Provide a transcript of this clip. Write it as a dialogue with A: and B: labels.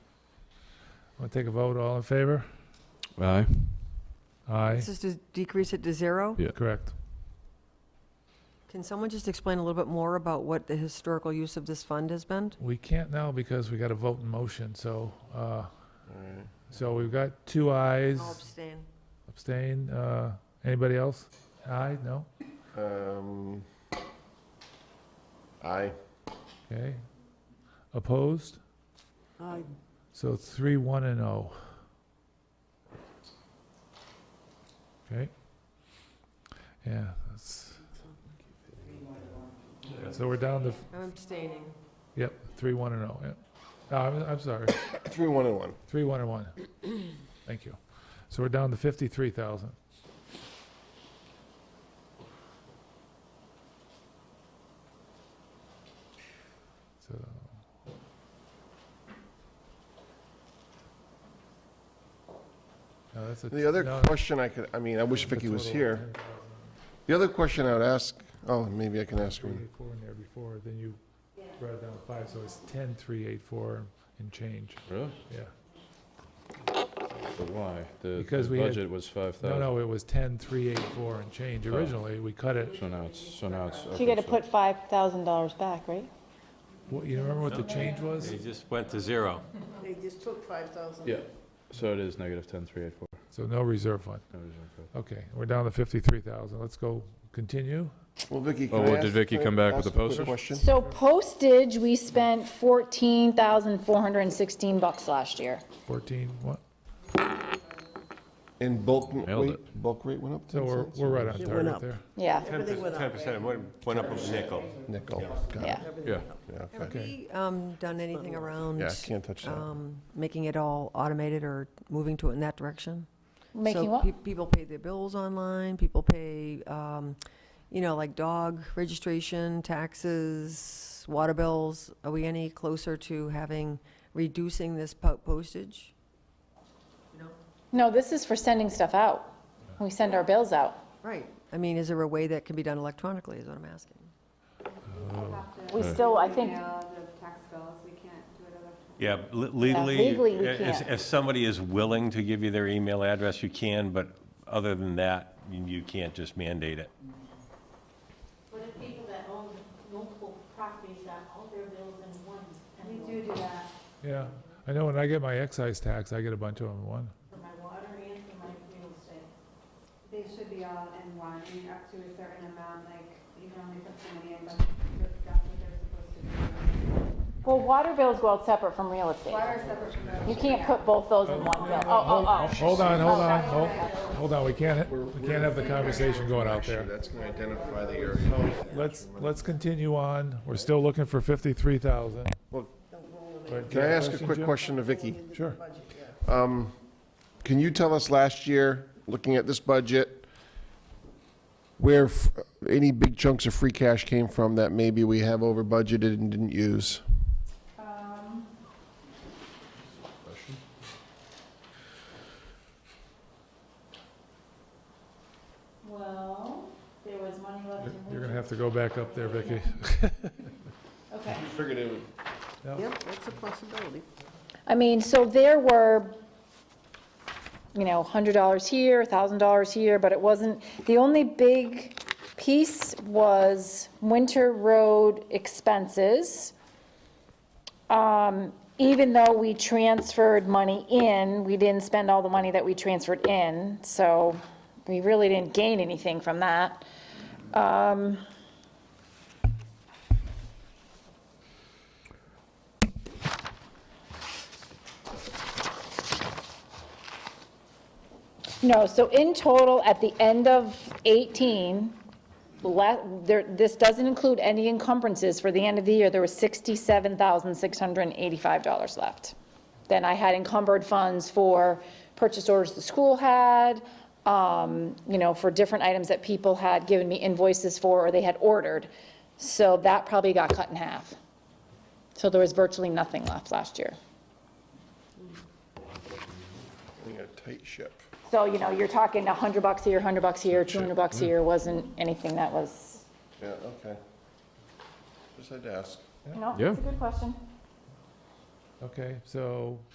A: Want to take a vote, all in favor?
B: Aye.
A: Aye,
C: This is to decrease it to zero?
B: Yeah.
A: correct.
C: Can someone just explain a little bit more about what the historical use of this fund has been?
A: We can't now because we got to vote in motion, so, uh, so we've got two ayes,
C: abstain.
A: abstain, uh, anybody else? Aye, no?
D: Um, aye.
A: Okay. Opposed?
C: Aye.
A: So three, one, and oh. Okay. Yeah, that's. So we're down to
C: I'm abstaining.
A: Yep, three, one, and oh, yep. No, I'm, I'm sorry,
D: Three, one, and one.
A: three, one, and one. Thank you. So we're down to fifty-three thousand. So. No, that's a.
D: The other
A: no,
D: question I could, I mean, I wish
A: that's a
D: Vicky was
A: total of
D: here.
A: 10,000.
D: The other question I would ask, oh, maybe I can ask
A: Three,
D: her.
A: eight, four in there before, then you brought it down to five, so it's ten, three, eight, four, and change,
B: Really?
A: yeah.
B: But why? The
A: Because
B: the
A: we had-
B: budget was five
A: No,
B: thousand.
A: no, it was ten, three, eight, four and change.
B: Oh.
A: Originally, we cut it,
B: So now it's, so now it's.
E: So you
B: okay,
E: got to put $5,000 back, right?
A: what- you remember what the change was?
F: They just went to zero.
G: They just took five thousand.
B: Yeah, so it is negative ten, three, eight, four.
A: So no reserve fund.
B: No, it is okay.
A: Okay, we're down to fifty-three thousand. Let's go, continue.
D: Well, Vicky,
B: Oh,
D: can I
B: well, did
D: ask-
B: Vicky
D: can I
B: come back with
D: ask
B: the
D: a quick
B: posters?
D: question?
E: So postage, we spent 14,416 bucks last year.
A: Fourteen, what?
D: And bulk
B: Nailed
D: rate, bulk rate went up
A: So
D: ten
A: we're,
D: cents?
A: we're right on
G: went
A: target
G: up.
A: there.
E: Yeah,
G: Everything
F: Ten percent, went up a nickel.
D: Nickel. Got it.
E: yeah.
B: Yeah,
D: Yeah,
C: Have
D: okay.
C: we um, done anything around?
D: Yeah, I can't touch that.
C: um, Making it all automated or moving to it in that direction?
E: Making
C: So
E: what?
C: pe- People pay their bills online, people pay, um, you know, like dog registration, taxes, water bills. Are we any closer to having, reducing this po- postage?
E: No, this is for sending stuff out. We send our bills out.
C: Right. I mean, is there a way that can be done electronically, is what I'm asking?
E: We still, I think,
H: Mail the tax bills, we can't do it electronically.
F: Yeah, le- legally.
E: legally we
F: if-
E: can't.
F: If somebody is willing to give you their email address, you can, but other than that, you- you can't just mandate it.
I: What if people that own multiple properties got all their bills in one
H: We
I: envelope
H: do do that.
A: Yeah, I know when I get my excise tax, I get a bunch of them in one.
I: for my water and for my real estate?
H: They should be all in one, I mean, up to a certain amount, like, you can only put so many in, but that's what they're supposed to
E: well, water bills go out separate from real estate.
H: do. Water is separate from
E: You
H: the.
E: can't put both those in one bill. Oh, oh, oh.
A: Hold on, hold
E: Oh,
A: on,
E: sorry.
A: hold, hold on, we can't, we can't have the conversation going out there.
D: That's going to identify the area.
A: Let's, let's continue on. We're still looking for fifty-three thousand.
D: Well,
A: Can
D: Can I ask a quick question to Vicky? Um,
A: Sure.
D: Can you tell us last year, looking at this budget, where f- any big chunks of free cash came from that maybe we have over budgeted and didn't use?
I: Well, there was money left in.
A: You're gonna have to go back up there, Vicky.
I: Okay.
D: Figured it would.
G: Yep, that's a possibility.
E: I mean, so there were, you know, $100 here, $1,000 here, but it wasn't, the only big piece was winter road expenses. Um, Even though we transferred money in, we didn't spend all the money that we transferred in, so we really didn't gain anything from that. Um, No, so in total, at the end of 18, la- there- this doesn't include any encumbrances, for the end of the year, there was $67,685 left. Then I had encumbered funds for purchase orders the school had, um, you know, for different items that people had given me invoices for or they had ordered. So that probably got cut in half. So there was virtually nothing left last year.
D: We got a tight ship.
E: So, you know, you're talking 100 bucks here, 100 bucks here, 200 bucks here, wasn't anything that was,
D: Yeah, okay. Just had to ask.
E: no,
B: Yeah.
E: it's a good question.
A: Okay, so